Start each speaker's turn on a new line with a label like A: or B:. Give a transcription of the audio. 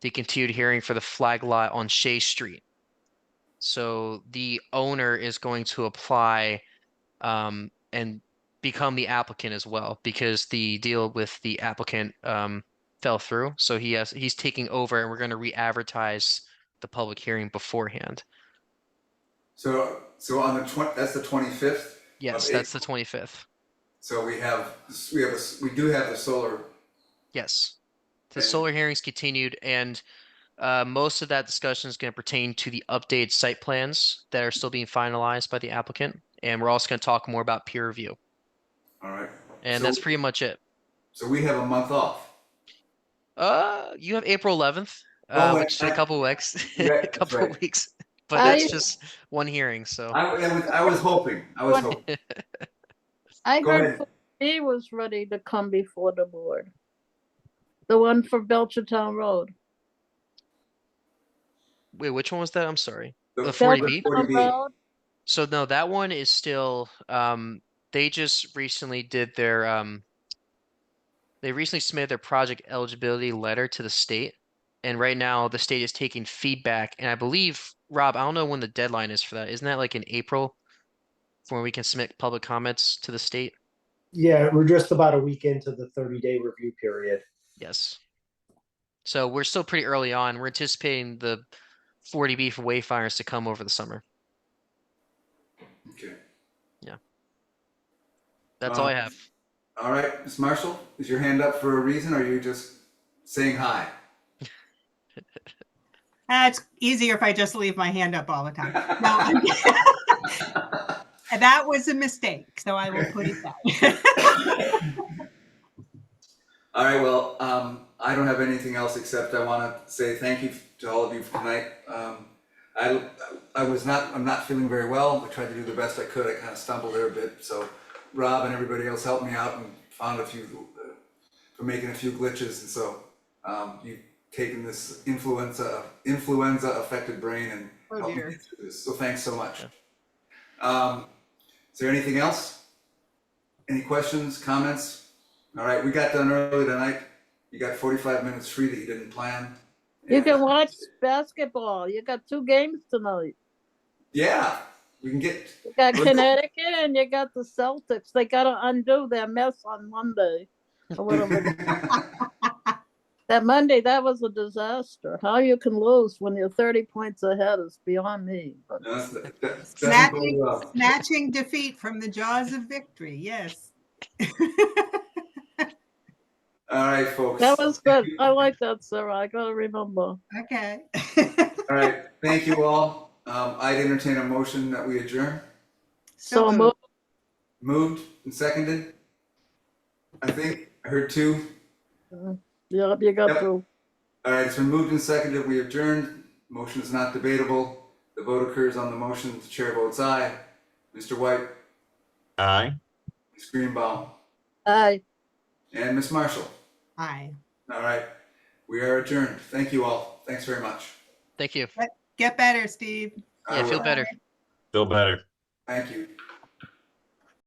A: the continued hearing for the flag lot on Shea Street. So the owner is going to apply um, and become the applicant as well because the deal with the applicant um, fell through. So he has he's taking over, and we're going to re-advertise the public hearing beforehand.
B: So, so on the twen, that's the twenty-fifth?
A: Yes,
B: Okay.
A: that's the twenty fifth.
B: So we have, we have, a- we do have the solar,
A: Yes. The
B: Okay.
A: solar hearings continued and uh, most of that discussion is going to pertain to the updated site plans that are still being finalized by the applicant. And we're also going to talk more about peer review.
B: all right?
A: And
B: So-
A: that's pretty much it.
B: So we have a month off.
A: Uh, you have April 11th,
B: Oh,
A: uh,
B: wait,
A: which is a
B: that-
A: couple weeks,
B: Yeah,
A: a
B: that's
A: couple
B: right.
A: weeks, but
C: I-
A: that's just one hearing. So
B: I, I was, I was hoping, I was hoping.
C: I
B: Go
C: heard
B: ahead.
C: Paul B was ready to come before the board. The one for Belchertown Road.
A: wait, which one was that? I'm sorry.
B: The-
A: The 40B?
C: Belchertown
B: 40B.
C: Road,
A: So no, that one is still, um, they just recently did their, um, they recently submitted their project eligibility letter to the state. And right now the state is taking feedback and I believe, Rob, I don't know when the deadline is for that. Isn't that like in April? For when we can submit public comments to the state?
D: Yeah, we're just about a week into the thirty day review period.
A: Yes. So we're still pretty early on. We're anticipating the 40B for Wayfires to come over the summer.
B: Okay.
A: That's all I
B: Um,
A: have.
B: All right, Ms. Marshall, is your hand up for a reason, or are you just saying hi?
E: Uh, it's easier if I just leave my hand up all the time. No, I'm- that was a mistake, so I will put it down.
B: All right, well, um, I don't have anything else except I want to say thank you to all of you for tonight. Um, I, I was not, I'm not feeling very well. I tried to do the best I could. I kind of stumbled there a bit. So Rob and everybody else helped me out and found a few, uh, for making a few glitches. And so, um, you've taken this influenza, influenza affected brain and
E: Oh,
B: helped me
E: dear.
B: get through this. So thanks so much. Um, is there anything else? Any questions, comments? All right, we got done early tonight. You got forty-five minutes free that you didn't plan.
C: you
B: And-
C: can watch basketball. You got two games tonight.
B: Yeah, we can get,
C: You got
B: What's-
C: Connecticut and you got the Celtics. They gotta undo their mess on Monday. or whatever. That Monday, that was a disaster. How you can lose when you're thirty points ahead is beyond me. but-
B: No, that's- that- that doesn't bode
E: Snatching,
B: well.
E: snatching defeat from the jaws of victory, yes.
B: All right, folks.
C: That was good. I like that, Sarah. I gotta remember.
E: Okay.
B: All right, thank you all. Um, I'd entertain a motion that we adjourn.
C: So
E: moved.
C: moved.
B: Moved and seconded. I think I heard two.
C: Yep, you got
B: Yep.
C: to.
B: All right, it's been moved and seconded. We adjourned. Motion is not debatable. The vote occurs on the motion. The chair votes aye. Mr. White,
F: Aye.
B: Ms. Greenbaum,
C: Aye.
B: and Ms. Marshall.
E: Hi.
B: All right, we are adjourned. Thank you all. Thanks very much.
A: Thank you.
E: Get better, Steve.
B: I
A: Yeah,
B: will.
A: feel better.
F: Feel better.
B: Thank you.